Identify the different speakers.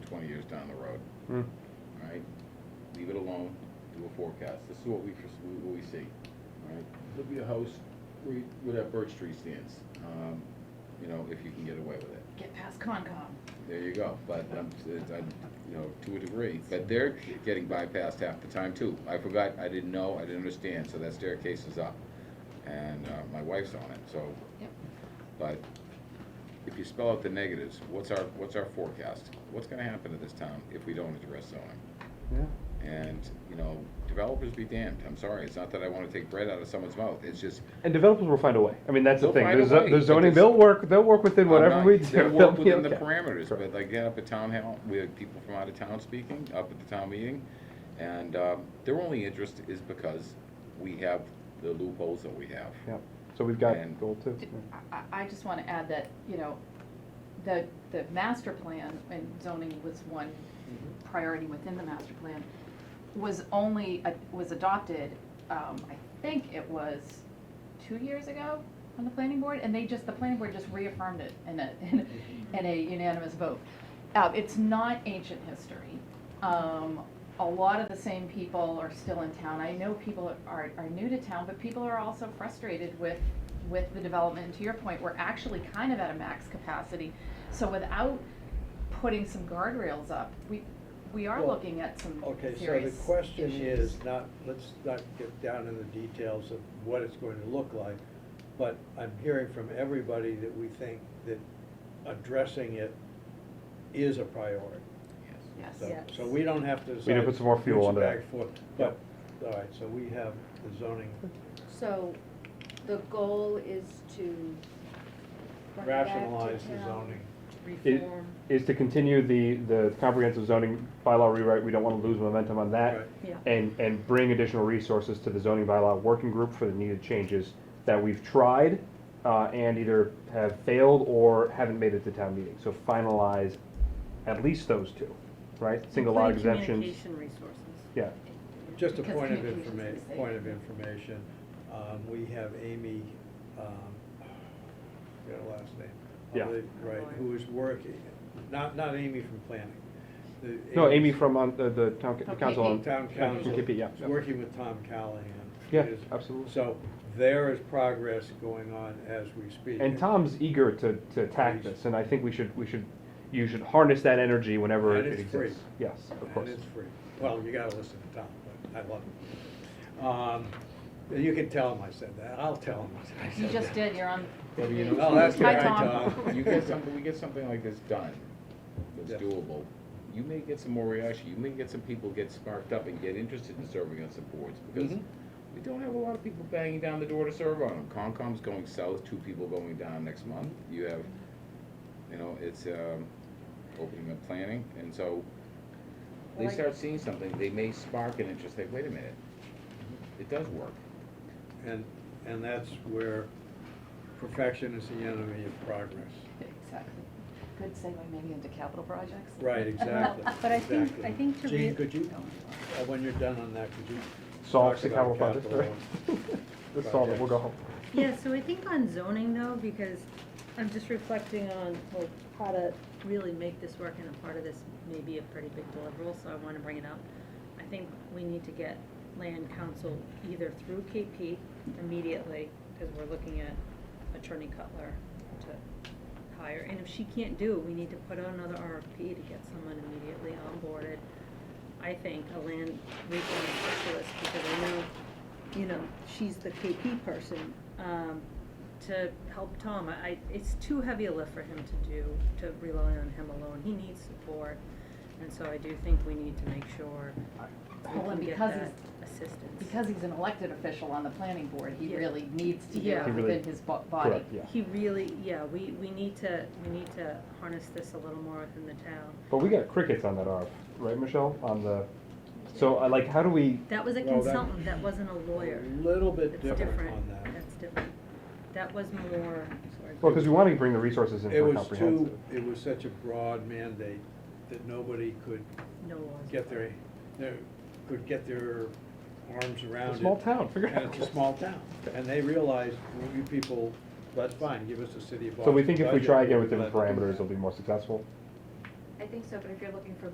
Speaker 1: years down the road,
Speaker 2: Hmm.
Speaker 1: all right? Leave it alone, do a forecast, this is what we, foresee- what we see, all right? There'll be a house where, you- where that birch tree stands, um, you know, if you can get away with it.
Speaker 3: Get past Concom.
Speaker 1: There you go, but, um, it's- I'm, you know, to a degree, but they're getting bypassed half the time too. I forgot, I didn't know, I didn't understand, so that staircase is up, and, uh, my wife's on it, so.
Speaker 3: Yep.
Speaker 1: But if you spell out the negatives, what's our, what's our forecast? What's gonna happen to this town if we don't address zoning?
Speaker 2: Yeah.
Speaker 1: And, you know, developers be damned, I'm sorry, it's not that I wanna take bread out of someone's mouth, it's just,
Speaker 2: And developers will find a way. I mean, that's the
Speaker 1: They'll
Speaker 2: thing.
Speaker 1: find
Speaker 2: The
Speaker 1: a
Speaker 2: zo-
Speaker 1: way,
Speaker 2: the
Speaker 1: but
Speaker 2: zoning,
Speaker 1: this-
Speaker 2: they'll work, they'll work within
Speaker 1: I'm
Speaker 2: whatever
Speaker 1: not-
Speaker 2: we do.
Speaker 1: They
Speaker 2: They'll
Speaker 1: work
Speaker 2: be
Speaker 1: within the
Speaker 2: okay.
Speaker 1: parameters,
Speaker 2: Correct.
Speaker 1: but like, yeah, up at town hall, we had people from out of town speaking, up at the town meeting, and, um, their only interest is because we have the loopholes that we have.
Speaker 2: Yeah, so we've got
Speaker 1: And-
Speaker 2: goal two.
Speaker 3: D-
Speaker 2: Yeah.
Speaker 3: I- I, I just wanna add that, you know, the, the master plan, and zoning was one priority within the master plan, was only, uh, was adopted, um, I think it was two years ago on the planning board, and they just, the planning board just reaffirmed it in a, in a- in a unanimous vote. Uh, it's not ancient history. Um, a lot of the same people are still in town. I know people are, are new to town, but people are also frustrated with, with the development. And to your point, we're actually kind of at a max capacity. So without putting some guardrails up, we, we are
Speaker 4: Well,
Speaker 3: looking at some
Speaker 4: Okay, so the
Speaker 3: serious
Speaker 4: question
Speaker 3: issues.
Speaker 4: is not, let's not get down in the details of what it's going to look like, but I'm hearing from everybody that we think that addressing it is a priority.
Speaker 1: Yes.
Speaker 3: Yes.
Speaker 4: So,
Speaker 5: Yes.
Speaker 4: so we don't have to
Speaker 2: need to
Speaker 4: decide
Speaker 2: put some more fuel
Speaker 4: which
Speaker 2: onto that.
Speaker 4: back foot, But, all right, so we have the zoning
Speaker 5: So the goal is to. bring it back to
Speaker 4: rationalize the
Speaker 5: town,
Speaker 4: zoning.
Speaker 2: It
Speaker 5: Reform.
Speaker 2: is to continue the, the comprehensive zoning bylaw rewrite, we don't wanna lose momentum on that.
Speaker 4: Right.
Speaker 5: Yeah.
Speaker 2: And, and bring additional resources to the zoning bylaw working group for the needed changes that we've tried, uh, and either have failed or haven't made it to town meeting. So finalize at least those two, right? Single lot
Speaker 6: Including
Speaker 2: exemptions,
Speaker 6: Communication resources.
Speaker 2: yeah.
Speaker 4: Just a
Speaker 3: Because
Speaker 4: point of
Speaker 3: communications
Speaker 4: informa,
Speaker 3: is the
Speaker 4: point of
Speaker 3: same.
Speaker 4: information, um, we have Amy, um, got her last name. I
Speaker 2: Yeah.
Speaker 4: believe, Right, who is working, not, not Amy from planning. the
Speaker 2: No, Amy from, um, the, the town, the
Speaker 3: From
Speaker 2: council on.
Speaker 3: KP.
Speaker 4: Town council,
Speaker 2: KP, yeah.
Speaker 4: is working with Tom Callahan.
Speaker 2: Yeah,
Speaker 4: It is-
Speaker 2: absolutely.
Speaker 4: So there is progress going on as we speak.
Speaker 2: And Tom's eager to, to attack this, and I think we should, we should, you should harness that energy whenever
Speaker 4: And
Speaker 2: it
Speaker 4: it's free.
Speaker 2: exists. Yes, of course.
Speaker 4: And it's free. Well, you gotta listen to Tom, but I love him. Um, You can tell him I said that. I'll tell him I said that.
Speaker 3: You just did, you're on.
Speaker 1: Well, you know-
Speaker 4: Oh, that's
Speaker 3: Hi,
Speaker 4: right,
Speaker 3: Tom.
Speaker 4: Tom.
Speaker 1: You get something, we get something like this done,
Speaker 4: Yeah.
Speaker 1: that's doable, you may get some more reaction, you may get some people get sparked up and get interested in serving on some boards, because
Speaker 4: Mhm.
Speaker 1: we don't have a lot of people banging down the door to serve on them. Concom's going south, two people going down next month, you have, you know, it's, um, opening up planning, and so they
Speaker 5: Like-
Speaker 1: start seeing something, they may spark an interest, like, wait a minute, it does work.
Speaker 4: And, and that's where perfection is the enemy of progress.
Speaker 3: Exactly. Good segue maybe into capital projects.
Speaker 4: Right, exactly.
Speaker 6: But I think-
Speaker 4: exactly.
Speaker 6: I think to
Speaker 4: Jean,
Speaker 6: re- Oh,
Speaker 4: could you, uh, when you're done on that, could you?
Speaker 2: Solve
Speaker 4: talk
Speaker 2: the capital
Speaker 4: about
Speaker 2: project, right? Let's solve it, we'll go home.
Speaker 6: Yeah, so I think on zoning though, because I'm just reflecting on, well, how to really make this work, and a part of this may be a pretty big deliverable, so I wanna bring it up. I think we need to get land council either through KP immediately, cause we're looking at Attorney Cutler to hire, and if she can't do, it, we need to put out another RFP to get someone immediately onboarded. I think a land reform specialist, because I know you know, she's the KP person, um, to help Tom. I, I- it's too heavy a lift for him to do, to rely on him alone. He needs support. And so I do think we need to make sure we
Speaker 3: Well, and
Speaker 6: can get
Speaker 3: because
Speaker 6: that
Speaker 3: he's-
Speaker 6: assistance.
Speaker 3: Because he's an elected official on the planning board, he
Speaker 6: Yeah.
Speaker 3: really needs to do
Speaker 6: Yeah.
Speaker 3: it
Speaker 6: He
Speaker 2: really-
Speaker 3: within his bo- body.
Speaker 2: Correct, yeah.
Speaker 6: He really, yeah, we, we need to, we need to harness this a little more within the town.
Speaker 2: But we got crickets on that ARF, right, Michelle, on the, so I like, how do we,
Speaker 6: That was a
Speaker 4: Well, that-
Speaker 6: consultant, that wasn't a lawyer.
Speaker 4: A little bit
Speaker 6: It's
Speaker 4: different
Speaker 6: different.
Speaker 4: on that.
Speaker 6: That's different. That was more, sorry.
Speaker 2: well, because we want to bring the resources in
Speaker 4: It
Speaker 2: for
Speaker 4: was
Speaker 2: comprehensive.
Speaker 4: too, it was such a broad mandate that nobody could
Speaker 6: No laws.
Speaker 4: get their, their, could get their arms around
Speaker 2: It's
Speaker 4: it.
Speaker 2: a small town, figure it
Speaker 4: And
Speaker 2: out.
Speaker 4: it's a small town, and they realized, well, you people, that's fine, give us the city of
Speaker 2: So
Speaker 4: Boston.
Speaker 2: we think if we
Speaker 4: budget,
Speaker 2: try again with different
Speaker 4: let them do
Speaker 2: parameters,
Speaker 4: that.
Speaker 2: it'll be more successful?
Speaker 5: I think so, but if you're looking for